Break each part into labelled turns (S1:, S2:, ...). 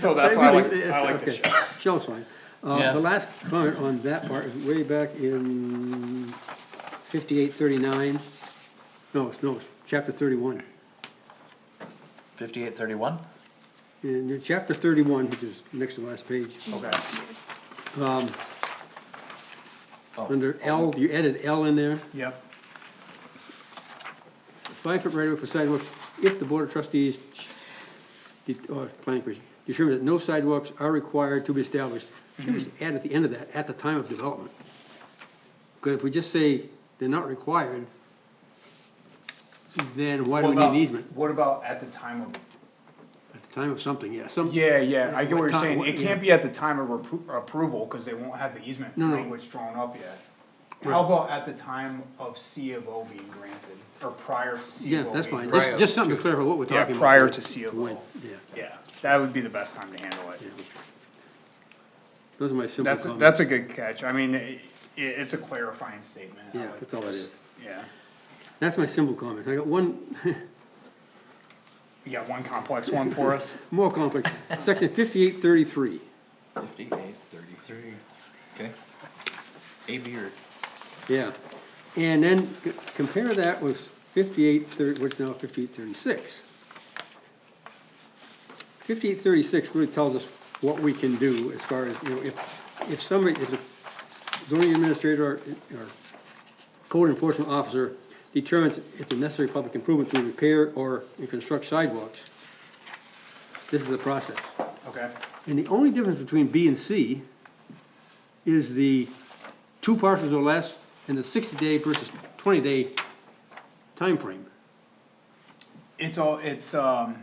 S1: So that's why I like, I like the
S2: Okay,
S1: show.
S2: Show's fine.
S3: Yeah.
S2: Uh, the last comment on that part is way back in fifty-eight thirty-nine, no, it's- no, it's chapter thirty-one.
S3: Fifty-eight thirty-one?
S2: In your chapter thirty-one, which is next to the last page,
S3: Okay.
S2: under L, you added L in there.
S1: Yep.
S2: five-foot right-of-way for sidewalks if the Board of Trustees, de- or Planning Commission, determine that no sidewalks are required to be established. Should we just add at the end of that, at the time of development? Because if we just say they're not required, then why do we need an easement?
S1: What about at the time of?
S2: At the time of something, yeah, some,
S1: Yeah, yeah, I get what
S2: What
S1: you're
S2: time-
S1: saying.
S2: what-
S1: It
S2: yeah.
S1: can't be at the time of repro- approval, cause they won't have the easement
S2: No, no.
S1: language drawn up yet. How about at the time of C of O being granted, or prior to C
S2: yeah,
S1: of O
S2: that's
S1: being
S2: fine,
S1: granted?
S2: just, just something to clarify what we're
S1: Yeah,
S2: talking about.
S1: prior to C of
S2: When-
S1: O.
S2: Yeah,
S1: Yeah, that would be the best time to handle it.
S2: those are my simple
S1: That's,
S2: comments.
S1: that's a good catch. I mean, it, it's a clarifying statement. I
S2: Yeah,
S1: like
S2: that's all it
S1: this.
S2: is.
S1: Yeah.
S2: That's my simple comment, I got one,
S1: You got one complex one for us?
S2: more complex, section fifty-eight thirty-three.
S3: Fifty-eight thirty-three. Okay. A, B, or?
S2: Yeah, and then c- compare that with fifty-eight thirty, what's now fifty-eight thirty-six. Fifty-eight thirty-six really tells us what we can do as far as, you know, if, if somebody, if a zoning administrator or or code enforcement officer determines it's a necessary public improvement to repair or construct sidewalks, this is the process.
S1: Okay,
S2: And the only difference between B and C is the two parcels or less and the sixty day versus twenty day time frame.
S1: it's all, it's, um,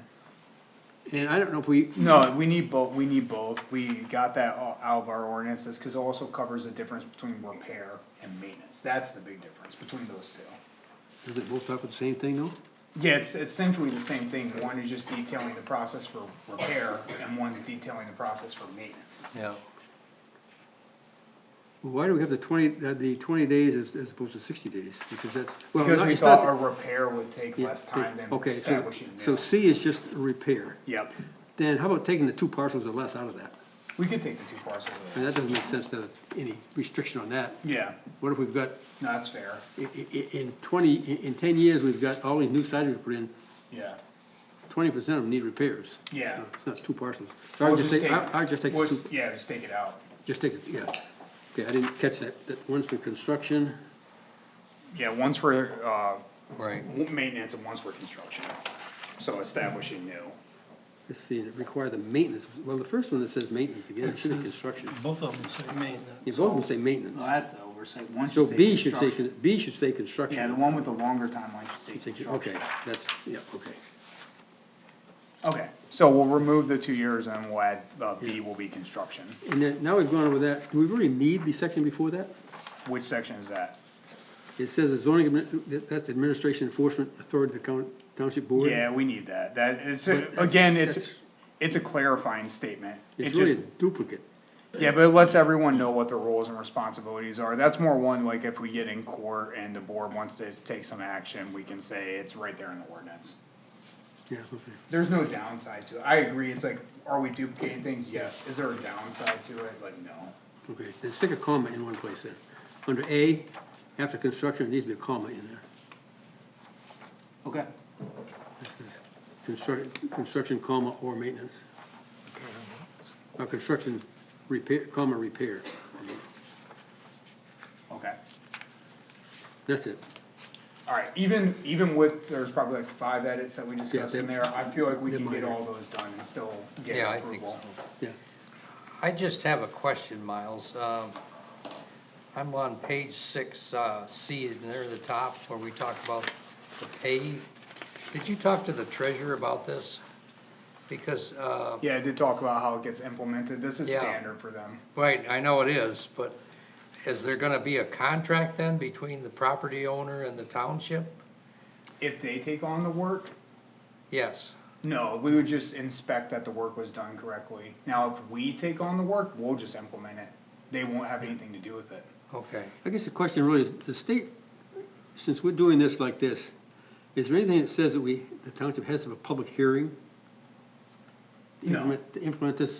S2: And I don't know if we,
S1: no, we need both, we need both, we got that o- out of our ordinances, cause it also covers the difference between repair and maintenance, that's the big difference between those two.
S2: does it both talk about the same thing though?
S1: Yeah, it's essentially the same thing, one is just detailing the process for repair, and one's detailing the process for maintenance.
S3: Yeah.
S2: Well, Why do we have the twenty, uh, the twenty days as, as opposed to sixty days? Because that's. well,
S1: Because
S2: not-
S1: we
S2: it's not
S1: thought a
S2: the-
S1: repair would take
S2: yeah,
S1: less time than
S2: Okay, so,
S1: establishing a new.
S2: so C is just a repair.
S1: Yep,
S2: Then how about taking the two parcels or less out of that?
S1: we could take the two parcels
S2: And
S1: of that,
S2: that doesn't make sense to any restriction on that.
S1: yeah,
S2: What if we've got
S1: no, that's fair,
S2: I- i- in twenty, in- in ten years, we've got all these new sidewalks put in,
S1: yeah,
S2: twenty percent of them need repairs. Uh,
S1: yeah.
S2: It's not two parcels. So I would just take, I I would just take, the
S1: we'll
S2: two-
S1: s- Yeah, just take it out,
S2: just take, it, yeah. Okay, I didn't catch that, that one's for construction,
S1: yeah, one's for, uh,
S3: Right.
S1: w- maintenance and one's for construction, so establishing new.
S2: let's see, it require the maintenance, well, the first one that says maintenance, again, it should be construction.
S4: Both of them say maintenance.
S2: You both will say maintenance.
S1: that's oversight, one
S2: So B should say, con- B should say construction.
S1: Yeah, the one with the longer timeline should say
S2: Take it-
S1: construction.
S2: Okay, that's, yeah, okay.
S1: Okay, so we'll remove the two years and we'll add, uh, B will be construction,
S2: And then, now we've gone over that, do we really need the section before that?
S1: which section is that?
S2: It says the zoning, admin- that- that's the administration enforcement authority of the coun- township board.
S1: Yeah, we need that, that, it's, a-
S2: But that's-
S1: again, it's,
S2: that's-
S1: it's a clarifying statement. It
S2: It's really a
S1: just-
S2: duplicate.
S1: Yeah, but it lets everyone know what their roles and responsibilities are. That's more one, like if we get in court and the board wants to take some action, we can say it's right there in the ordinance.
S2: Yeah, okay.
S1: There's no downside to it. I agree, it's like, are we duplicating things? Yes. Is there a downside to it? Like, no.
S2: Okay, then stick a comma in one place there. Under A, after construction, there needs to be a comma in there.
S1: Okay.
S2: Construct, construction, comma, or maintenance. Or construction, repair, comma, repair.
S1: Okay,
S2: That's it.
S1: alright, even, even with, there's probably like five edits that we discussed in there,
S2: that's-
S1: I feel like we
S2: they're
S1: can get
S2: minor.
S1: all those done and still
S3: Yeah,
S1: get
S3: I think
S1: approval.
S2: Yeah,
S5: I just have a question, Miles. Um, I'm on page six, uh, C, near the top, where we talk about the pay. Did you talk to the treasurer about this? Because, uh,
S1: Yeah, I did talk about how it gets implemented. This is
S5: Yeah.
S1: standard for them.
S5: right, I know it is, but is there gonna be a contract then between the property owner and the township?
S1: If they take on the work,
S5: Yes,
S1: No, we would just inspect that the work was done correctly. Now, if we take on the work, we'll just implement it. They won't have anything to do with it.
S5: okay.
S2: I guess the question really is, the state, since we're doing this like this, is there anything that says that we, the township has to have a public hearing?
S1: No.
S2: implement, implement this